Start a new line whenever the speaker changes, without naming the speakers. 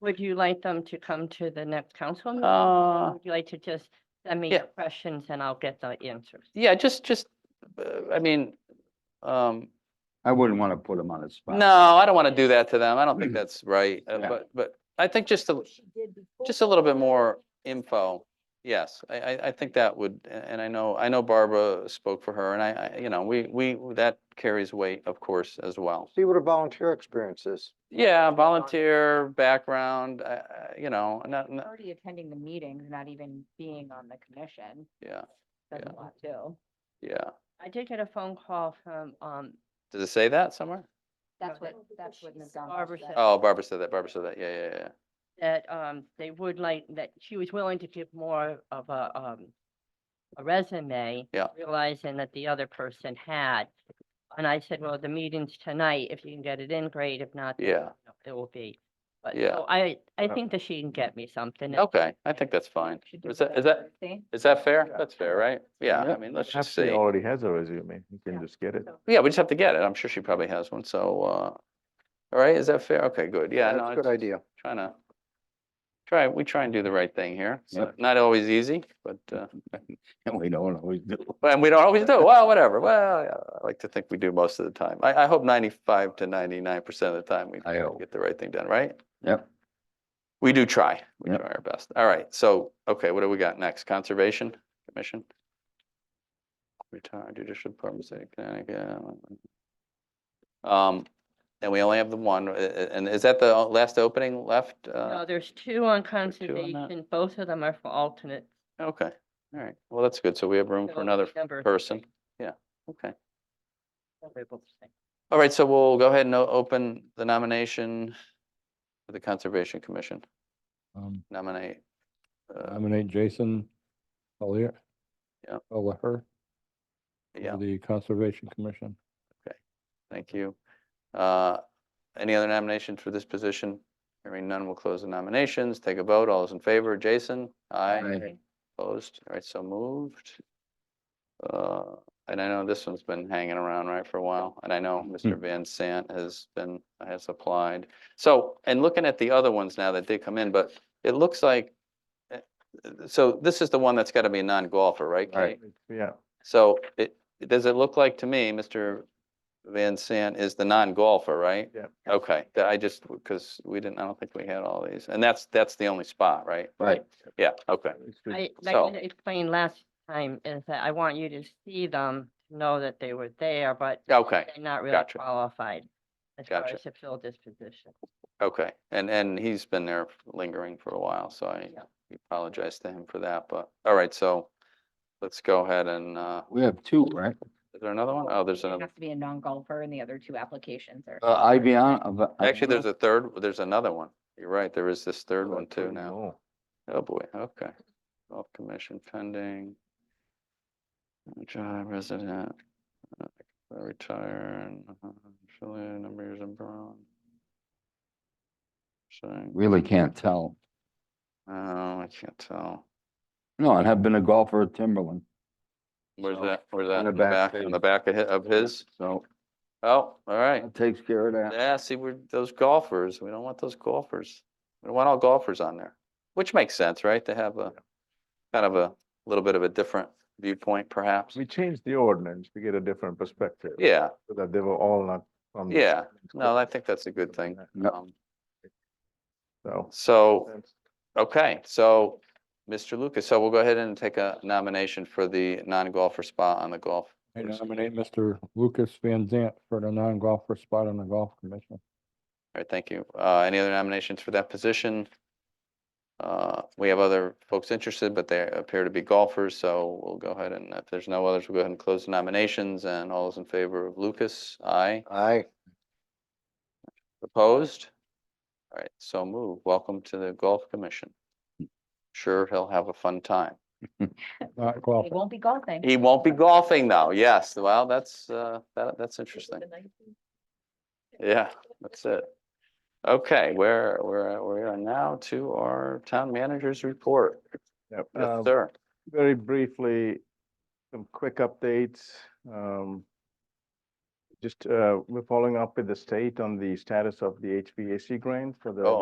Would you like them to come to the next council meeting? or
Uh,
Would you like to just send me
yeah.
your questions and I'll get the answers?
yeah, just, just, uh, I mean, um,
I wouldn't want to put them on the spot.
no, I don't want to do that to them. I don't think that's right. uh,
Yeah.
But, but I think just a,
she did before.
just a little bit more info. Yes, I, I, I think that would, a- and I know, I know Barbara spoke for her and I, I, you know, we, we, that carries weight, of course, as well.
See what a volunteer experience is.
Yeah, volunteer background, uh, you know, not, not,
Already attending the meetings, not even being on the commission,
yeah,
that's
Yeah.
a lot too.
yeah.
I did get a phone call from, um,
Does it say that somewhere?
That's
Yeah.
what, that's what Ms.
Barbara
Gonzalez said.
said.
Oh, Barbara said that, Barbara said that, yeah, yeah, yeah.
that, um, they would like, that she was willing to give more of a, um, a resume.
Yeah.
Realizing that the other person had. And I said, well, the meeting's tonight. If you can get it in, great. If not, then,
Yeah.
you know, It will be. But
Yeah. Uh,
so I, I
Yeah.
think that she can get me something. and-
Okay, I think that's fine.
Should do
Is that,
better
is that,
literacy.
is that fair?
Yeah.
That's fair, right? Yeah,
Yeah.
I mean, let's just
Actually,
see.
Already has a resume, you can
Yeah.
just get it.
So-
Yeah, we just have to get it. I'm sure she probably has one, so, uh, all right, is that fair? Okay, good, yeah, no,
That's a good
it's
idea.
trying to, try, we try and do the right thing here. It's
Yep.
Not always easy, but, uh,
And we don't always do.
and we don't always do, well, whatever, well, yeah, I like to think we do most of the time. I, I hope ninety-five to ninety-nine percent of the time we
I hope.
get the right thing done, right?
Yep.
We do try, we
Yep.
try our best. All right, so, okay, what do we got next? Conservation Commission? Retired judicial department, City of Connecticut. Um, and we only have the one, uh, uh, and is that the o- last opening left?
No,
Uh,
there's two on
two on that.
conservation. Both of them are for alternates.
okay, all right, well, that's good, so we have room
so
for another
number
person,
three,
okay.
we're able to say.
All right, so we'll go ahead and o- open the nomination for the Conservation Commission,
Um,
nominate. uh,
Nominate Jason Collier.
Yeah.
O'Leher
Yeah,
for the Conservation Commission.
Thank you. Uh, Any other nominations for this position? Hearing none, we'll close the nominations, take a vote, all those in favor, Jason? Aye.
Aye.
Opposed, all right, so moved. Uh, And I know this one's been hanging around, right, for a while, and I know Mr. Van Sant has been, has applied. So, and looking at the other ones now that did come in, but it looks like, eh, so this is the one that's got to be a non-golfer, right, Kate?
Right, yeah.
So it, does it look like to me, Mr. Van Sant is the non-golfer, right?
Yeah.
Okay, that I just, because we didn't, I don't think we had all these, and that's, that's the only spot, right?
Right.
Yeah, okay,
It's good.
I, like
So-
I explained last time, is that I want you to see them, know that they were there, but
okay,
they're not really
Gotcha.
qualified as far
Gotcha.
as to fill this position.
okay. And, and he's been there lingering for a while, so I
Yeah.
apologize to him for that, but, all right, so let's go ahead and, uh,
We have two, right?
is there another one? Oh, there's
It
another,
has to be a non-golfer and the other two applications are.
Uh, Ivian. Iv-
actually, there's
Ivana?
a third, there's another one. You're right, there is this third
Oh,
one
that's
too
right,
now.
no.
Oh, boy, okay. Golf commission pending. Uh, Job resident. uh, Retire and uh, fill in number of years in Brown. Saying,
Really can't tell.
oh, I can't tell.
No, and have been a golfer at Timberland,
Where's
So,
that, where's that?
the
In the back,
back
in
page.
the back of hi- of his?
so
Oh, all right.
that takes care of that.
Yeah, see, we're those golfers. We don't want those golfers. We don't want all golfers on there, which makes sense, right? To have a kind of a little bit of a different viewpoint perhaps.
We changed the ordinance to get a different perspective.
Yeah,
So that they were all not on. the
Yeah,
same
no, I
squad.
think that's a good thing.
Yep.
Um,
So.
So,
that's-
okay, so Mr. Lucas, so we'll go ahead and take a nomination for the non-golfer spot on the golf.
I
course.
nominate Mr. Lucas Van Zant for the non-golfer spot on the Golf Commission.
All right, thank you. Uh, any other nominations for that position? Uh, we have other folks interested, but they appear to be golfers, so we'll go ahead and if there's no others, we'll go ahead and close the nominations and all those in favor of Lucas, aye.
Aye.
Opposed? All right, so move. Welcome to the Golf Commission. Sure, he'll have a fun time.
Not
They
golfer.
won't be golfing.
He won't be golfing though, yes, well, that's, uh, that, that's interesting, yeah, that's it. Okay, we're, we're, we are now to our town manager's report,
Yep.
yes,
Um,
sir,
Very briefly, some quick updates. um, Just, uh, we're following up with the state on the status of the HVAC grant for the
Oh,